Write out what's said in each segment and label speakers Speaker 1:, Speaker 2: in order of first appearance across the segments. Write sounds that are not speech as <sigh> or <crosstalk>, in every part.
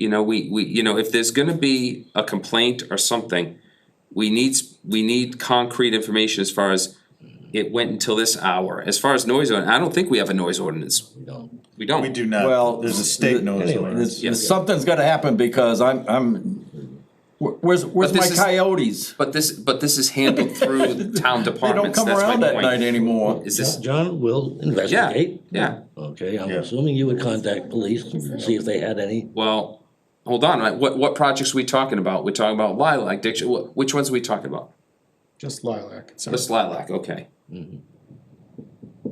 Speaker 1: you know, we we, you know, if there's gonna be a complaint or something, we need, s- we need concrete information as far as it went until this hour. As far as noise, ordin- I don't think we have a noise ordinance. We don't. We don't.
Speaker 2: We do not,
Speaker 3: Oh, Well,
Speaker 2: there's a state noise
Speaker 3: anyway,
Speaker 2: ordinance.
Speaker 3: there's- Something's gotta happen because I'm, I'm, where- where's, where's
Speaker 1: But
Speaker 3: my
Speaker 1: this is-
Speaker 3: coyotes?
Speaker 1: But this, but this is handled
Speaker 3: <laughs>
Speaker 1: through the town
Speaker 3: They don't
Speaker 1: departments,
Speaker 3: come
Speaker 1: that's my
Speaker 3: around
Speaker 1: point.
Speaker 3: at night anymore.
Speaker 1: Is this,
Speaker 4: John will
Speaker 1: yeah,
Speaker 4: investigate.
Speaker 1: yeah,
Speaker 4: Okay, I'm
Speaker 2: Yeah.
Speaker 4: assuming you would contact police and see if they had any.
Speaker 1: well, hold on, right, what, what projects are we talking about? We're talking about lilac, diction, wh- which ones are we talking about?
Speaker 5: Just lilac. So
Speaker 1: Just lilac, okay.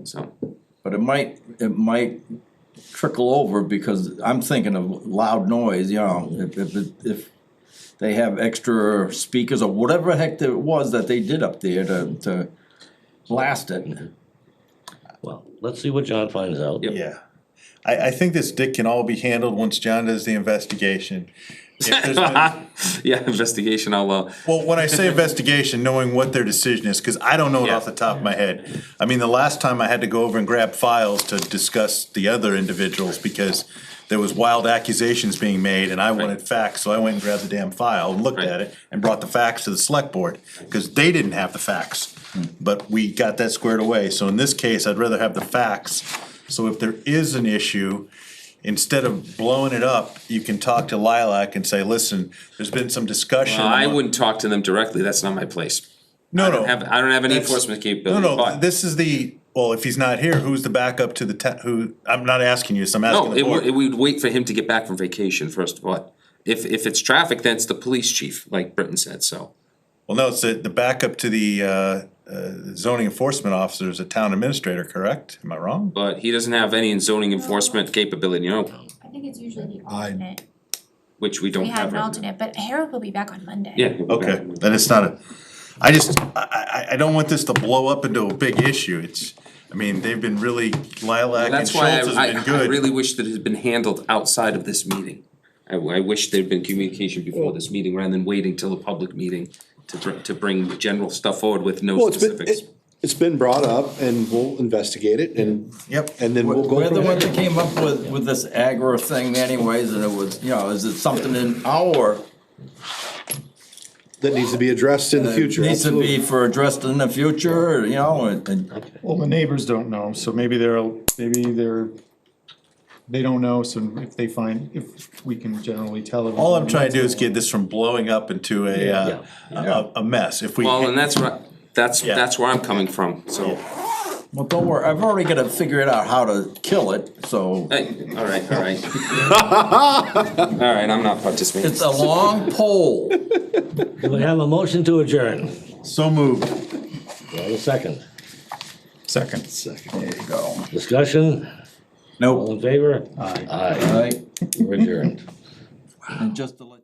Speaker 1: So, <laughs>
Speaker 3: But it might, it might trickle over because I'm thinking of loud noise, you know, if, if, it- if they have extra speakers or whatever the heck it was that they did up there to, to blast it.
Speaker 4: Well, let's see what John finds out.
Speaker 1: Yep.
Speaker 2: Yeah. I, I think this dick can all be handled once John does the investigation. If
Speaker 3: <laughs>
Speaker 2: there's been-
Speaker 1: yeah, investigation, I'll, uh,
Speaker 2: Well, when I say investigation, knowing what their decision is, cause I don't know it off the top of my head. I mean, the last time I had to go over and grab files to discuss the other individuals because there was wild accusations being made and I wanted facts, so I went and grabbed the damn file and looked at it and brought the facts to the select board, cause they didn't have the facts. But we got that squared away, so in this case, I'd rather have the facts. So if there is an issue, instead of blowing it up, you can talk to Lilac and say, listen, there's been some discussion.
Speaker 1: Uh, I
Speaker 2: among-
Speaker 1: wouldn't talk to them directly, that's not my place.
Speaker 2: no, no.
Speaker 1: I have, I don't have any
Speaker 2: That's-
Speaker 1: enforcement capability,
Speaker 2: No, no,
Speaker 1: but,
Speaker 2: this is the, well, if he's not here, who's the backup to the ta- who, I'm not asking you, this. I'm asking
Speaker 1: no,
Speaker 2: the
Speaker 1: it would, it
Speaker 2: board.
Speaker 1: would wait for him to get back from vacation first of all. If, if it's traffic, then it's the police chief, like Britton said, so.
Speaker 2: Well, no, it's the, the backup to the, uh, uh, zoning enforcement officer is a town administrator, correct? Am I wrong?
Speaker 1: But he doesn't have any zoning enforcement capability, you know,
Speaker 6: I think it's usually the alternate.
Speaker 1: which we don't
Speaker 6: We have
Speaker 1: have
Speaker 6: an
Speaker 1: right now.
Speaker 6: alternate, but Harold will be back on Monday.
Speaker 1: Yeah. we'll go
Speaker 2: Okay,
Speaker 1: back.
Speaker 2: then it's not a, I just, I, I, I don't want this to blow up into a big issue, it's, I mean, they've been really, Lilac and
Speaker 1: That's
Speaker 2: Schultz
Speaker 1: why
Speaker 2: has
Speaker 1: I,
Speaker 2: been
Speaker 1: I, I
Speaker 2: good.
Speaker 1: really wish that it had been handled outside of this meeting. I, I wish there'd been communication before this meeting rather than waiting till a public meeting to br- to bring general stuff forward with
Speaker 7: Well,
Speaker 1: no
Speaker 7: it's been,
Speaker 1: specifics.
Speaker 7: it- it's been brought up and we'll investigate it and.
Speaker 2: Yep.
Speaker 7: And then we'll go
Speaker 3: We're the
Speaker 7: from
Speaker 3: one that
Speaker 7: there.
Speaker 3: came up with, with this agro thing anyways, and it was, you know, is it something in our,
Speaker 7: That needs to be addressed in the future.
Speaker 3: Uh, needs to be
Speaker 7: absolutely.
Speaker 3: for addressed in the future, you know, and, and
Speaker 5: Well, the neighbors don't know, so maybe they're, maybe they're, they don't know, so if they find, if we can generally tell them.
Speaker 2: All I'm trying to do is get this from blowing up into a, uh, a, a mess, if we.
Speaker 1: Well, and that's right, that's,
Speaker 2: Yeah.
Speaker 1: that's where I'm coming from, so,
Speaker 3: Well, don't worry, I've already gotta figure it out how to kill it, so
Speaker 1: hey, alright, alright. Alright, I'm not participating.
Speaker 3: it's a long pole.
Speaker 4: Do we have a motion to adjourn?
Speaker 2: So moved.
Speaker 4: Do I have a second?
Speaker 5: Second.
Speaker 3: There you go.
Speaker 4: Discussion?
Speaker 3: Nope.
Speaker 4: All in favor?
Speaker 5: Aye.
Speaker 4: Aye.
Speaker 3: Right,
Speaker 4: We're adjourned.
Speaker 3: and just to let.